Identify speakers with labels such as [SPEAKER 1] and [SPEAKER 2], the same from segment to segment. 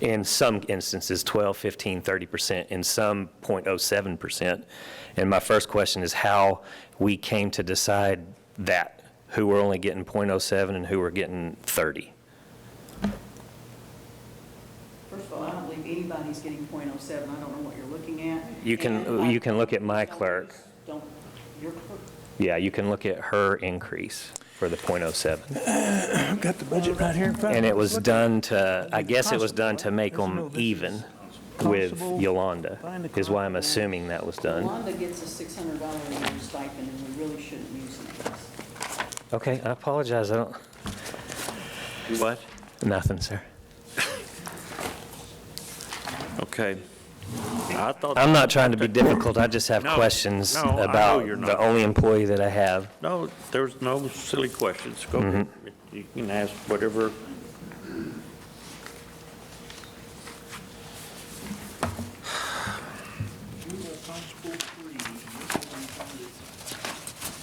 [SPEAKER 1] in some instances, 12, 15, 30%, in some 0.07%. And my first question is how we came to decide that, who were only getting 0.07 and who were getting 30.
[SPEAKER 2] First of all, I don't believe anybody's getting .07. I don't know what you're looking at.
[SPEAKER 1] You can-
[SPEAKER 2] And I-
[SPEAKER 1] you can look at my clerk.
[SPEAKER 2] Don't, your clerk.
[SPEAKER 1] Yeah, you can look at her increase for the .07.
[SPEAKER 3] I've got the budget right here in front of
[SPEAKER 1] And
[SPEAKER 3] me.
[SPEAKER 1] it was
[SPEAKER 3] Look at
[SPEAKER 1] done to, I guess it was done to
[SPEAKER 3] Constable,
[SPEAKER 1] make
[SPEAKER 3] right? There's
[SPEAKER 1] them
[SPEAKER 3] no-
[SPEAKER 1] even with
[SPEAKER 3] Constable,
[SPEAKER 1] Yolanda,
[SPEAKER 3] find the
[SPEAKER 1] is why I'm
[SPEAKER 3] constable.
[SPEAKER 1] assuming that was done.
[SPEAKER 2] Wanda gets a $600 a year stipend, and we really shouldn't use it.
[SPEAKER 1] Okay, I apologize, I don't,
[SPEAKER 4] What?
[SPEAKER 1] nothing, sir.
[SPEAKER 4] Okay. I thought,
[SPEAKER 1] I'm not trying to be difficult, I just have
[SPEAKER 4] No,
[SPEAKER 1] questions
[SPEAKER 4] no, I know
[SPEAKER 1] about
[SPEAKER 4] you're
[SPEAKER 1] the
[SPEAKER 4] not.
[SPEAKER 1] only employee that I have.
[SPEAKER 4] no, there's no silly questions. Go
[SPEAKER 1] Mm-hmm.
[SPEAKER 4] ahead. You can ask whatever.
[SPEAKER 5] Constable three.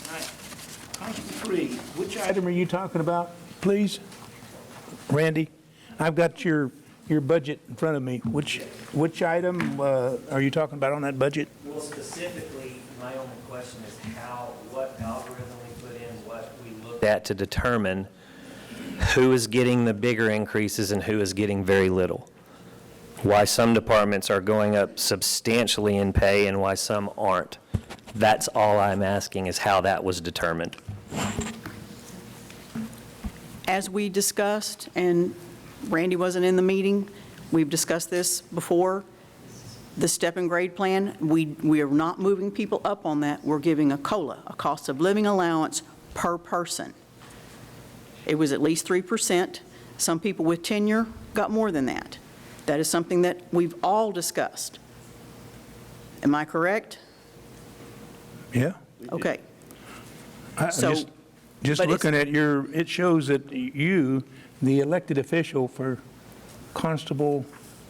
[SPEAKER 5] All right, Constable three, which
[SPEAKER 3] Which
[SPEAKER 5] item
[SPEAKER 3] item are you talking about, please? Randy, I've got your, your budget in front of me. Which, which item uh, are you talking about on that budget?
[SPEAKER 6] Well, specifically, my only question is how, what algorithm we put in, what we look at.
[SPEAKER 1] That to determine who is getting the bigger increases and who is getting very little. Why some departments are going up substantially in pay and why some aren't. That's all I'm asking is how that was determined.
[SPEAKER 2] As we discussed, and Randy wasn't in the meeting, we've discussed this before, the step and grade plan, we, we are not moving people up on that. We're giving a COLA, a cost of living allowance per person. It was at least 3%. Some people with tenure got more than that. That is something that we've all discussed. Am I correct?
[SPEAKER 3] Yeah?
[SPEAKER 2] Okay.
[SPEAKER 3] I- I'm
[SPEAKER 2] So,
[SPEAKER 3] just- Just
[SPEAKER 2] but it's-
[SPEAKER 3] looking at your, it shows that you, the elected official for Constable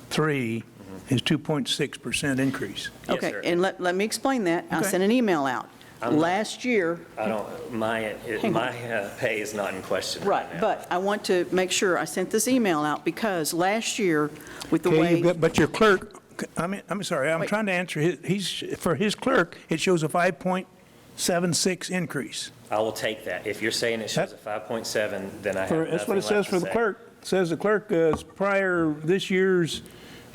[SPEAKER 3] 3 is 2.6% increase.
[SPEAKER 1] Yes,
[SPEAKER 2] Okay,
[SPEAKER 1] sir.
[SPEAKER 2] and let, let me explain that. I
[SPEAKER 3] Okay.
[SPEAKER 2] sent an email out.
[SPEAKER 1] I'm-
[SPEAKER 2] Last year,
[SPEAKER 1] I don't, my,
[SPEAKER 2] on.
[SPEAKER 1] my uh, pay is not in question
[SPEAKER 2] right, but I want to make sure, I sent this email out because last year, with the
[SPEAKER 3] Okay, you've
[SPEAKER 2] way,
[SPEAKER 3] got- but your clerk, I mean, I'm sorry, I'm
[SPEAKER 2] Wait.
[SPEAKER 3] trying to answer, his- he's, for his clerk, it shows a 5.76 increase.
[SPEAKER 1] I will take that. If you're saying it shows a 5.7, then I have
[SPEAKER 3] For- That's what
[SPEAKER 1] nothing
[SPEAKER 3] it
[SPEAKER 1] left
[SPEAKER 3] says
[SPEAKER 1] to
[SPEAKER 3] for the
[SPEAKER 1] say.
[SPEAKER 3] clerk. It Says the clerk, uh, prior, this year's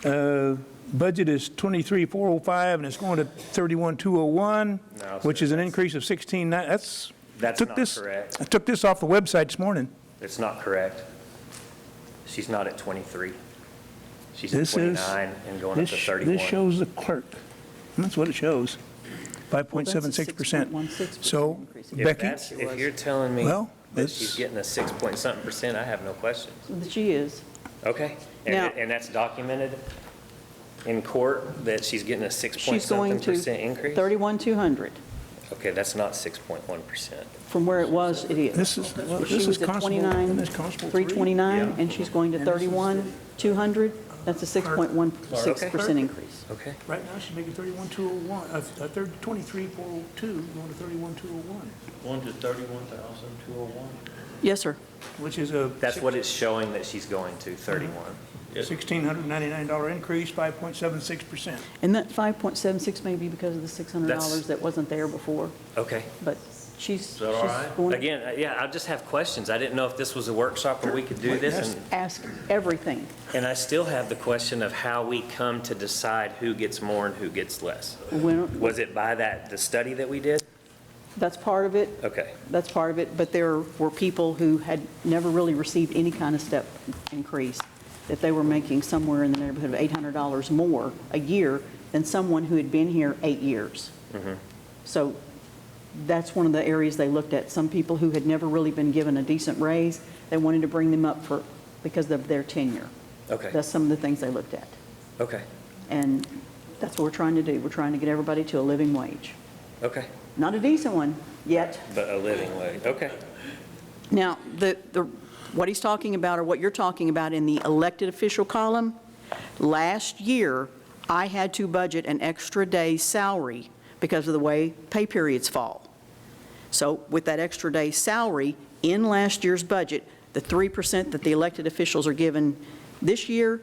[SPEAKER 3] uh, budget is 23,405, and it's going to 31,201,
[SPEAKER 1] No,
[SPEAKER 3] which
[SPEAKER 1] sir,
[SPEAKER 3] is an
[SPEAKER 1] that's-
[SPEAKER 3] increase of 16, that's.
[SPEAKER 1] That's
[SPEAKER 3] took
[SPEAKER 1] not
[SPEAKER 3] this-
[SPEAKER 1] correct.
[SPEAKER 3] I took this off the website this morning.
[SPEAKER 1] It's not correct. She's not at 23. She's at
[SPEAKER 3] This is.
[SPEAKER 1] 29 and going up
[SPEAKER 3] this-
[SPEAKER 1] to 31.
[SPEAKER 3] This shows the clerk. That's what it shows, 5.76%.
[SPEAKER 2] 6.16%
[SPEAKER 3] So
[SPEAKER 2] increase. If
[SPEAKER 1] If
[SPEAKER 3] Becky,
[SPEAKER 1] that's, if you're telling me
[SPEAKER 3] Well,
[SPEAKER 1] that
[SPEAKER 3] it's-
[SPEAKER 1] she's getting a six point something percent, I have no questions.
[SPEAKER 2] that she is,
[SPEAKER 1] Okay? And,
[SPEAKER 2] Now-
[SPEAKER 1] and that's documented in court that she's getting a six point
[SPEAKER 2] she's
[SPEAKER 1] something
[SPEAKER 2] going to
[SPEAKER 1] percent increase?
[SPEAKER 2] 31,200.
[SPEAKER 1] Okay, that's not 6.1%.
[SPEAKER 2] From where it was, it is.
[SPEAKER 3] this is, well,
[SPEAKER 2] She
[SPEAKER 3] this is
[SPEAKER 2] was at
[SPEAKER 3] Constable,
[SPEAKER 2] 29,
[SPEAKER 3] and this Constable three.
[SPEAKER 2] 329,
[SPEAKER 1] Yeah.
[SPEAKER 2] and she's going to 31,200. That's a 6.16% increase.
[SPEAKER 1] Okay?
[SPEAKER 3] Right now, she's making 31,201, uh, uh, thirty- 23,402, going to 31,201,
[SPEAKER 4] One to thirty-one thousand, two oh one.
[SPEAKER 2] Yes, sir.
[SPEAKER 3] which is a.
[SPEAKER 1] That's what it's showing that she's going to, 31.
[SPEAKER 3] $1,699 increase, 5.76%.
[SPEAKER 2] And that 5.76 may be because of the $600
[SPEAKER 1] That's-
[SPEAKER 2] that wasn't there before,
[SPEAKER 1] Okay.
[SPEAKER 2] but she's, she's
[SPEAKER 4] that all right?
[SPEAKER 2] going to
[SPEAKER 1] Again, uh, yeah, I just have questions. I didn't know if this was a workshop or we could do this. And,
[SPEAKER 2] ask everything.
[SPEAKER 1] and I still have the question of how we come to decide who gets more and who gets less.
[SPEAKER 2] When-
[SPEAKER 1] Was it by that, the study that we did?
[SPEAKER 2] That's part of it.
[SPEAKER 1] Okay.
[SPEAKER 2] That's part of it, but there were people who had never really received any kind of step increase, that they were making somewhere in the neighborhood of $800 more a year than someone who had been here eight years. So that's one of the areas they looked at, some people who had never really been given a decent raise, they wanted to bring them up for, because of their tenure.
[SPEAKER 1] Okay.
[SPEAKER 2] That's some of the things they looked at,
[SPEAKER 1] Okay,
[SPEAKER 2] and that's what we're trying to do, we're trying to get everybody to a living wage.
[SPEAKER 1] okay.
[SPEAKER 2] Not a decent one, yet.
[SPEAKER 1] But a living wage, okay.
[SPEAKER 2] Now, the, the, what he's talking about, or what you're talking about in the elected official column, last year, I had to budget an extra day's salary because of the way pay periods fall. So with that extra day's salary in last year's budget, the 3% that the elected officials are given this year